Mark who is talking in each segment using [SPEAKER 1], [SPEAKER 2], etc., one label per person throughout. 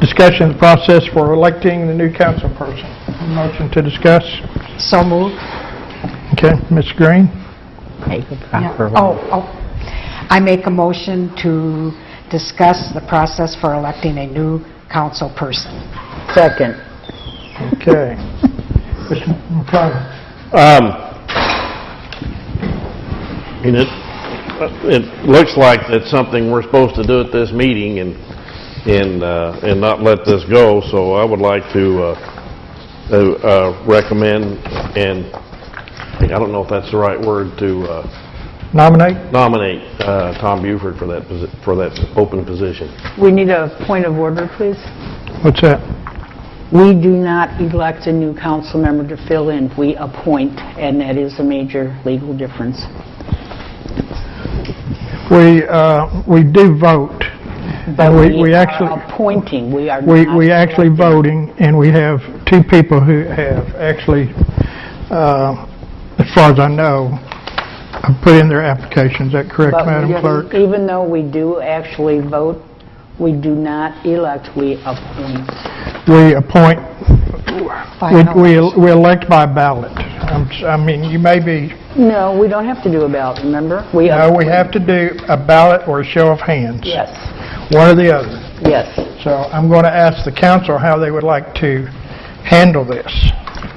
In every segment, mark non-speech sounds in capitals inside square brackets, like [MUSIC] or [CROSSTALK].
[SPEAKER 1] Discussion of the process for electing the new council person. Motion to discuss.
[SPEAKER 2] So moved.
[SPEAKER 1] Okay, Ms. Green?
[SPEAKER 2] Yeah. Oh, oh. I make a motion to discuss the process for electing a new council person.
[SPEAKER 3] Second.
[SPEAKER 1] Okay. Mr. McConnell?
[SPEAKER 4] Um, And it, it looks like that's something we're supposed to do at this meeting and, and, uh, and not let this go, so I would like to, uh, to, uh, recommend and, I don't know if that's the right word, to uh,
[SPEAKER 1] Nominate?
[SPEAKER 4] nominate uh, Tom Buford for that, posi- for that open position.
[SPEAKER 3] We need a point of order, please.
[SPEAKER 1] What's that?
[SPEAKER 3] We do not elect a new council member to fill in. We appoint, and that is a major legal difference.
[SPEAKER 1] We, uh, we do vote. And we, we
[SPEAKER 3] are
[SPEAKER 1] actually,
[SPEAKER 3] Appointing, we are
[SPEAKER 1] we,
[SPEAKER 3] not
[SPEAKER 1] we actually
[SPEAKER 3] electing.
[SPEAKER 1] voting, and we have two people who have actually, uh, as far as I know, have put in their applications. Is that correct,
[SPEAKER 3] But
[SPEAKER 1] Madam
[SPEAKER 3] we-
[SPEAKER 1] Clerk?
[SPEAKER 3] Even though we do actually vote, we do not elect, we appoint.
[SPEAKER 1] We appoint, we,
[SPEAKER 2] Final.
[SPEAKER 1] we we elect by ballot. I'm s- I mean, you may be,
[SPEAKER 3] No, we don't have to do a ballot, remember? We
[SPEAKER 1] no, we
[SPEAKER 3] appoint.
[SPEAKER 1] have to do a ballot or a show of hands.
[SPEAKER 3] Yes,
[SPEAKER 1] One or the other.
[SPEAKER 3] yes.
[SPEAKER 1] So I'm going to ask the council how they would like to handle this.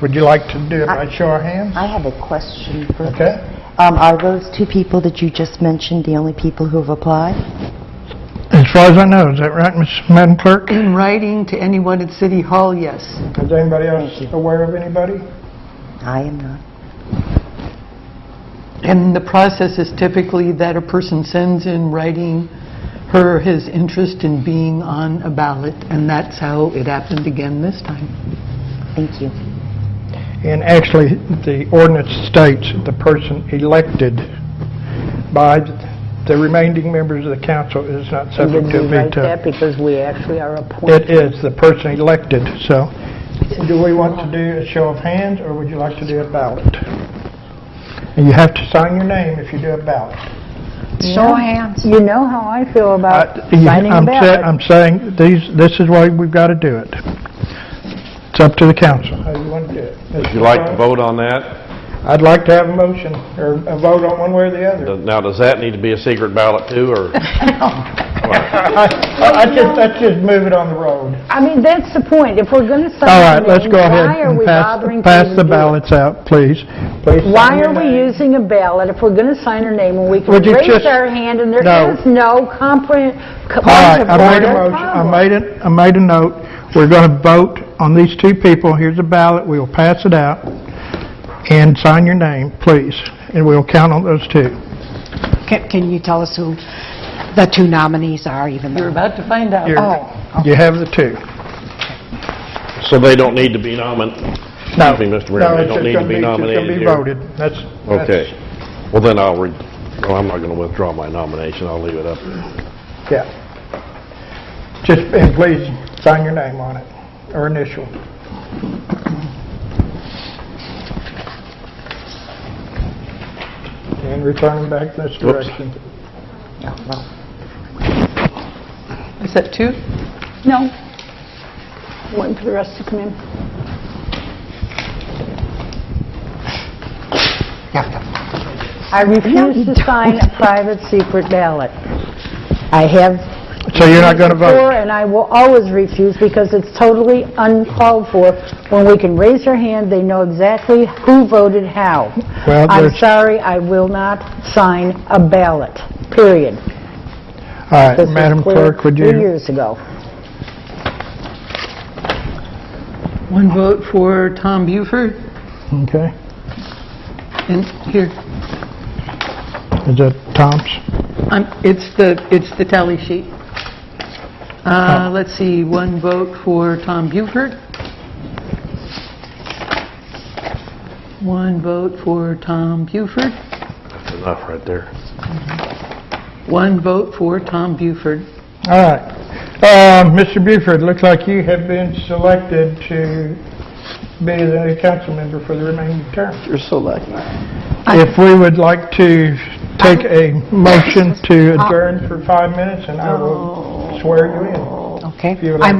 [SPEAKER 1] Would you like to do it by show of hands?
[SPEAKER 5] I have a question for...
[SPEAKER 1] Okay.
[SPEAKER 5] Um, Are those two people that you just mentioned the only people who have applied?
[SPEAKER 1] As far as I know, is that right, Ms. Madam Clerk?
[SPEAKER 6] In writing to anyone at City Hall, yes.
[SPEAKER 1] Is anybody else aware of anybody?
[SPEAKER 5] I am not.
[SPEAKER 6] And the process is typically that a person sends in writing her, or his interest in being on a ballot, and that's how it happened again this time.
[SPEAKER 5] Thank you.
[SPEAKER 1] And actually, the ordinance states that the person elected by the remaining members of the council is not
[SPEAKER 3] Did
[SPEAKER 1] subject to
[SPEAKER 3] we
[SPEAKER 1] a
[SPEAKER 3] write that?
[SPEAKER 1] veto.
[SPEAKER 3] Because we actually are appointing.
[SPEAKER 1] It is the person elected, so do we want to do a show of hands, or would you like to do a ballot? And you have to sign your name if you do a ballot.
[SPEAKER 2] Show of hands.
[SPEAKER 3] You know how I feel about
[SPEAKER 1] I- you-
[SPEAKER 3] signing a
[SPEAKER 1] I'm sa-
[SPEAKER 3] ballot.
[SPEAKER 1] I'm saying, these, this is why we've got to do it. It's up to the council. How you want to do it?
[SPEAKER 4] Would you like to vote on that?
[SPEAKER 1] I'd like to have a motion, or a vote on one way or the other.
[SPEAKER 4] Uh, Now, does that need to be a secret ballot too, or?
[SPEAKER 1] [LAUGHS] I I just, that's just move it on the road.
[SPEAKER 3] I mean, that's the point. If we're going to sign
[SPEAKER 1] All right,
[SPEAKER 3] a
[SPEAKER 1] let's
[SPEAKER 3] name,
[SPEAKER 1] go ahead
[SPEAKER 3] why are
[SPEAKER 1] and
[SPEAKER 3] we
[SPEAKER 1] pass,
[SPEAKER 3] bothering? to
[SPEAKER 1] pass the
[SPEAKER 3] do it?
[SPEAKER 1] ballots out, please. Please sign
[SPEAKER 3] Why
[SPEAKER 1] your
[SPEAKER 3] are we
[SPEAKER 1] name.
[SPEAKER 3] using a ballot if we're going to sign our name and we can
[SPEAKER 1] Would you
[SPEAKER 3] raise
[SPEAKER 1] just-
[SPEAKER 3] our hand and there
[SPEAKER 1] No.
[SPEAKER 3] is no comprehend?
[SPEAKER 1] All right, I made a motion, I made it, I made a note. We're going to vote on these two people. Here's a ballot, we will pass it out, and sign your name, please, and we'll count on those two.
[SPEAKER 2] Can can you tell us who the two nominees are even
[SPEAKER 6] You're
[SPEAKER 2] though?
[SPEAKER 6] about to find out.
[SPEAKER 1] Here,
[SPEAKER 3] Oh,
[SPEAKER 1] You have the two.
[SPEAKER 4] So they don't need to be nominated?
[SPEAKER 1] No,
[SPEAKER 4] Excuse me, Mr.
[SPEAKER 1] no,
[SPEAKER 4] Mayor, they
[SPEAKER 1] it's
[SPEAKER 4] don't
[SPEAKER 1] just
[SPEAKER 4] need
[SPEAKER 1] gonna
[SPEAKER 4] to be
[SPEAKER 1] it's just gonna
[SPEAKER 4] nominated
[SPEAKER 1] be
[SPEAKER 4] here?
[SPEAKER 1] voted. That's, that's...
[SPEAKER 4] Okay. Well, then I'll, re- well, I'm not going to withdraw my nomination. I'll leave it up.
[SPEAKER 1] Yeah. Just, and please sign your name on it, or initial. And return them back this
[SPEAKER 4] Whoops.
[SPEAKER 1] direction.
[SPEAKER 6] Is that two?
[SPEAKER 3] No. Waiting for the rest to come in. I refuse to sign a private secret ballot. I have
[SPEAKER 1] So you're not going to
[SPEAKER 3] before,
[SPEAKER 1] vote?
[SPEAKER 3] And I will always refuse because it's totally uncalled for. When we can raise our hand, they know exactly who voted how.
[SPEAKER 1] Well,
[SPEAKER 3] I'm
[SPEAKER 1] there's-
[SPEAKER 3] sorry, I will not sign a ballot, period.
[SPEAKER 1] All right,
[SPEAKER 3] This was
[SPEAKER 1] Madam
[SPEAKER 3] clear
[SPEAKER 1] Clerk, would
[SPEAKER 3] Three
[SPEAKER 1] you,
[SPEAKER 3] years ago.
[SPEAKER 6] One vote for Tom Buford,
[SPEAKER 1] okay,
[SPEAKER 6] and here,
[SPEAKER 1] is that Tom's?
[SPEAKER 6] I'm- um, it's the, it's the tally sheet. Uh, Let's see, one vote for Tom Buford. One vote for Tom Buford.
[SPEAKER 4] That's enough right there.
[SPEAKER 6] One vote for Tom Buford.
[SPEAKER 1] All right. Uh, Mr. Buford, looks like you have been selected to be the new council member for the remaining term.
[SPEAKER 7] You're so lucky.
[SPEAKER 1] If we would like to take a motion to adjourn for five minutes, and I will swear you in.
[SPEAKER 2] Okay.
[SPEAKER 1] If you would
[SPEAKER 2] I
[SPEAKER 1] like-